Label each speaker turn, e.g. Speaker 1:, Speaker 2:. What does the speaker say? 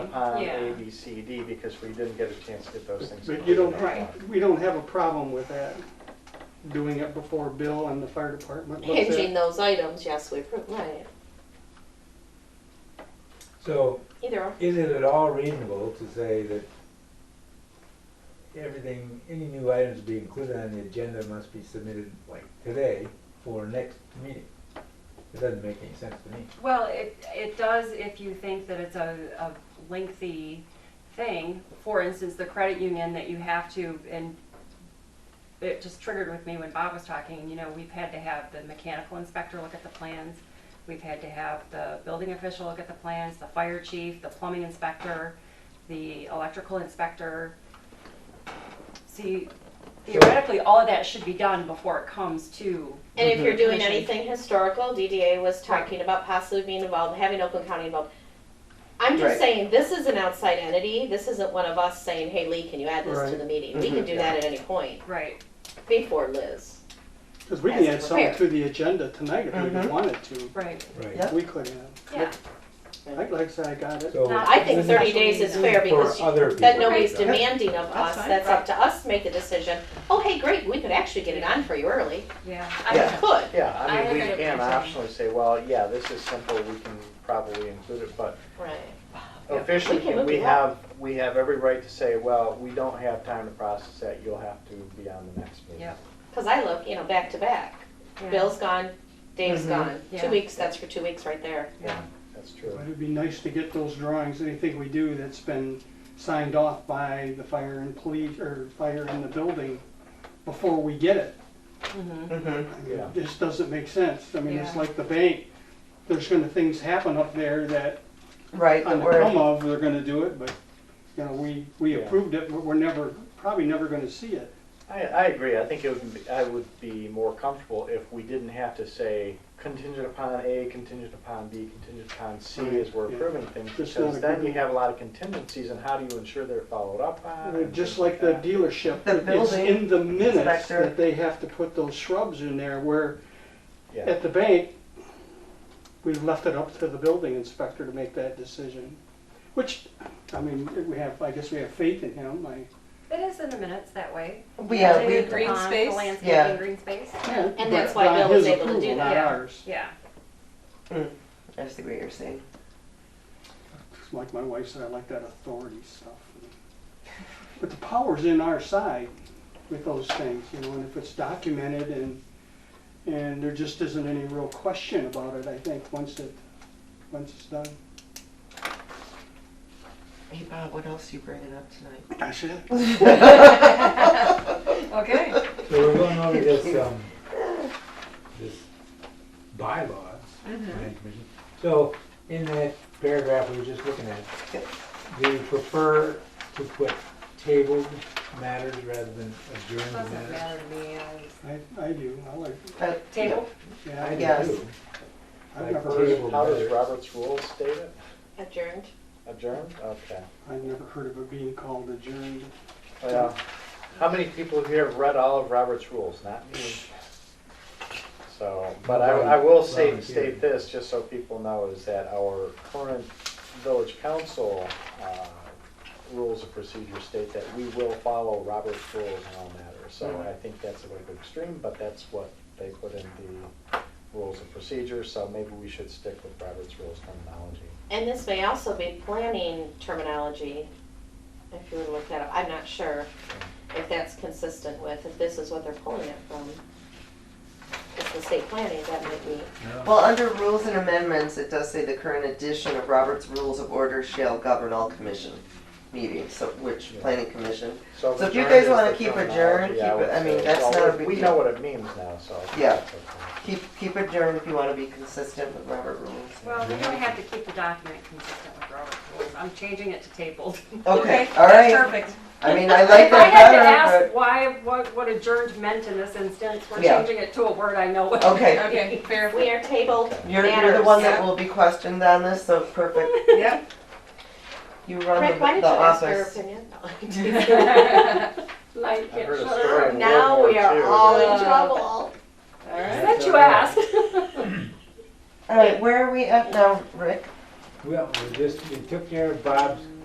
Speaker 1: upon A,
Speaker 2: Yeah.
Speaker 1: B, C, D, because we didn't get a chance to get those things.
Speaker 3: But you don't,
Speaker 1: included on
Speaker 2: Right.
Speaker 3: we don't have a problem with that, doing it before Bill and the fire department looks at
Speaker 4: Hinging
Speaker 3: it.
Speaker 4: those items, yes, we, pro- right,
Speaker 5: So
Speaker 4: either or.
Speaker 5: is it at all reasonable to say that everything, any new items to be included on the agenda must be submitted like today for next meeting? It doesn't make any sense to me.
Speaker 2: Well, it, it does if you think that it's a, a lengthy thing. For instance, the credit union that you have to, and it just triggered with me when Bob was talking, you know, we've had to have the mechanical inspector look at the plans. We've had to have the building official look at the plans, the fire chief, the plumbing inspector, the electrical inspector. See, theoretically, all of that should be done before it comes to,
Speaker 4: And if
Speaker 5: Mhm.
Speaker 4: you're doing
Speaker 2: Commission.
Speaker 4: anything historical, DDA was talking about possibly being involved, having Oakland County involved. I'm
Speaker 1: Right.
Speaker 4: just saying, this is an outside entity, this isn't one of us saying, hey, Lee, can you add this to
Speaker 3: Right.
Speaker 4: the meeting?
Speaker 5: Mm-hmm.
Speaker 4: We can
Speaker 1: Mhm.
Speaker 4: do that at any point,
Speaker 2: right,
Speaker 4: before Liz.
Speaker 3: Cause we
Speaker 4: Has
Speaker 3: can
Speaker 4: to
Speaker 3: add something
Speaker 4: prepare.
Speaker 3: to the agenda tonight if we
Speaker 1: Mhm.
Speaker 3: wanted to,
Speaker 2: right,
Speaker 5: Right.
Speaker 1: Yeah.
Speaker 3: we could have.
Speaker 2: yeah.
Speaker 3: Like, like I said, I got it.
Speaker 5: So
Speaker 2: Not-
Speaker 4: I think
Speaker 5: this is
Speaker 4: thirty days is fair because
Speaker 5: For other people.
Speaker 4: then nobody's
Speaker 5: Right.
Speaker 4: demanding of us,
Speaker 6: That's fine.
Speaker 4: that's up to us to make the decision. Oh, hey, great, we could actually get it on for you early,
Speaker 2: Yeah.
Speaker 4: we
Speaker 1: Yeah.
Speaker 4: could.
Speaker 1: Yeah,
Speaker 2: I
Speaker 1: I mean,
Speaker 2: have
Speaker 1: we
Speaker 2: it
Speaker 1: can
Speaker 2: written.
Speaker 1: optionally say, well, yeah, this is simple, we can probably include it, but
Speaker 4: Right.
Speaker 2: Yeah.
Speaker 1: officially,
Speaker 4: We can
Speaker 1: we
Speaker 4: look it up.
Speaker 1: have, we have every right to say, well, we don't have time to process that, you'll have to be on the next meeting.
Speaker 2: Yep.
Speaker 4: Cause I look, you know, back to back.
Speaker 2: yeah.
Speaker 4: Bill's gone, Dave's
Speaker 6: Mm-hmm.
Speaker 1: Mhm.
Speaker 4: gone,
Speaker 2: Yeah.
Speaker 4: two weeks, that's for two weeks right there.
Speaker 2: Yeah.
Speaker 1: That's true.
Speaker 3: But it'd be nice to get those drawings, anything we do that's been signed off by the fire and police, or fire in the building, before we get it.
Speaker 2: Mhm.
Speaker 3: I mean,
Speaker 1: Yeah.
Speaker 3: This doesn't make sense, I mean, it's
Speaker 2: Yeah.
Speaker 3: like the bank, there's gonna, things happen up there that
Speaker 6: Right,
Speaker 3: on
Speaker 6: that
Speaker 3: the come
Speaker 6: we're,
Speaker 3: of, they're gonna do it, but, you know, we, we
Speaker 1: Yeah.
Speaker 3: approved it, but we're never, probably never gonna see it.
Speaker 1: I, I agree, I think it would, be- I would be more comfortable if we didn't have to say contingent upon A, contingent upon B, contingent upon C as we're
Speaker 3: Yeah.
Speaker 1: approving things,
Speaker 3: Just not
Speaker 1: because
Speaker 3: a
Speaker 1: then
Speaker 3: good-
Speaker 1: you have a lot of contingencies, and how do you ensure they're followed up on?
Speaker 3: Uh,
Speaker 1: and
Speaker 3: Just
Speaker 1: things
Speaker 3: like the
Speaker 1: that.
Speaker 3: dealership,
Speaker 6: The
Speaker 3: it's
Speaker 6: building
Speaker 3: in the minutes
Speaker 6: inspector.
Speaker 3: that they have to put those shrubs in there, where
Speaker 1: Yeah,
Speaker 3: at the bank, we left it up to the building inspector to make that decision, which, I mean, we have, I guess we have faith in him, I,
Speaker 2: It is in the minutes that way.
Speaker 6: we, yeah, we
Speaker 2: Contingent
Speaker 6: agree.
Speaker 2: upon the
Speaker 6: space?
Speaker 2: Landscaping,
Speaker 6: Yeah.
Speaker 2: green space,
Speaker 4: And that's
Speaker 3: but
Speaker 4: why
Speaker 3: by
Speaker 4: Bill was
Speaker 3: his
Speaker 4: able to do
Speaker 3: approval,
Speaker 4: that.
Speaker 3: Not
Speaker 2: Yeah.
Speaker 3: ours,
Speaker 2: yeah.
Speaker 6: I just see what you're saying.
Speaker 3: It's like my wife said, I like that authority stuff. But the power's in our side with those things, you know, and if it's documented and, and there just isn't any real question about it, I think, once it, once it's done.
Speaker 6: Hey Bob, what else you bringing up tonight?
Speaker 3: That's it.
Speaker 2: Okay.
Speaker 5: So we're going over this, um, this bylaw,
Speaker 4: Mm-hmm.
Speaker 5: planning commission. So in that paragraph we were just looking at,
Speaker 6: Yep.
Speaker 5: do you prefer to put tabled matters rather than adjourned
Speaker 2: Doesn't
Speaker 5: matters?
Speaker 2: matter to me, I-
Speaker 3: I, I do, I like,
Speaker 6: Uh,
Speaker 2: Table?
Speaker 3: yeah,
Speaker 5: I
Speaker 3: I-
Speaker 5: do
Speaker 6: Yes.
Speaker 5: too.
Speaker 3: I've never
Speaker 5: Like
Speaker 3: heard, of-
Speaker 5: table
Speaker 1: how does
Speaker 5: matters.
Speaker 1: Robert's rules state it?
Speaker 4: Adjourned.
Speaker 1: Adjourned, okay.
Speaker 3: I've never heard of it being called adjourned.
Speaker 1: Well, Oh, how many people here have read all of Robert's rules? Not me. So, but I, I will say,
Speaker 5: Right.
Speaker 1: state this, just so people know, is that our current village council, uh, rules of procedure state that we will follow Robert's rules in all matters. So I think that's a little bit extreme, but that's what they put in the rules of procedure, so maybe we should stick with Robert's rules terminology.
Speaker 4: And this may also be planning terminology, if you were to look that up. I'm not sure if that's consistent with, if this is what they're pulling it from. It's the state planning, that might be.
Speaker 5: No.
Speaker 6: Well, under rules and amendments, it does say the current edition of Robert's Rules of Order shall govern all commission meetings, so, which, planning commission. So if you
Speaker 1: adjourned
Speaker 6: guys
Speaker 1: is
Speaker 6: wanna
Speaker 1: the
Speaker 6: keep
Speaker 1: terminology,
Speaker 6: adjourned, keep
Speaker 1: would
Speaker 6: it- I mean,
Speaker 1: say.
Speaker 6: that's
Speaker 1: Well,
Speaker 6: not a
Speaker 1: we-
Speaker 6: big
Speaker 1: We
Speaker 6: deal.
Speaker 1: know what it means now, so. I think
Speaker 6: Yeah.
Speaker 1: that's okay.
Speaker 6: Keep, keep adjourned if you wanna be consistent with Robert rules.
Speaker 2: well, we don't have to keep the document consistent with Robert's rules. I'm changing it to tabled.
Speaker 6: Okay, all
Speaker 2: That's
Speaker 6: right,
Speaker 2: perfect.
Speaker 6: I mean, I like
Speaker 2: If I had to
Speaker 6: that better,
Speaker 2: ask why, what, what adjourned meant in this instance, we're
Speaker 6: Yeah.
Speaker 2: changing it to a word I know.
Speaker 6: but, okay.
Speaker 2: Okay,
Speaker 6: fair.
Speaker 4: We are tabled
Speaker 6: You're, you're the one
Speaker 4: matters.
Speaker 6: that will be questioned on this, so perfect.
Speaker 2: Yep.
Speaker 6: You run
Speaker 4: Rick, why
Speaker 6: the
Speaker 4: did
Speaker 6: the
Speaker 4: you ask her
Speaker 6: office.
Speaker 4: opinion?
Speaker 2: Like,
Speaker 1: I've heard a
Speaker 2: shut
Speaker 1: story.
Speaker 2: up.
Speaker 1: in
Speaker 4: Now
Speaker 1: World
Speaker 4: we
Speaker 1: War II
Speaker 4: are all
Speaker 1: that-
Speaker 4: in trouble.
Speaker 2: That you asked.
Speaker 6: All right, where are we at now, Rick?
Speaker 5: Well, we just, we took care of Bob's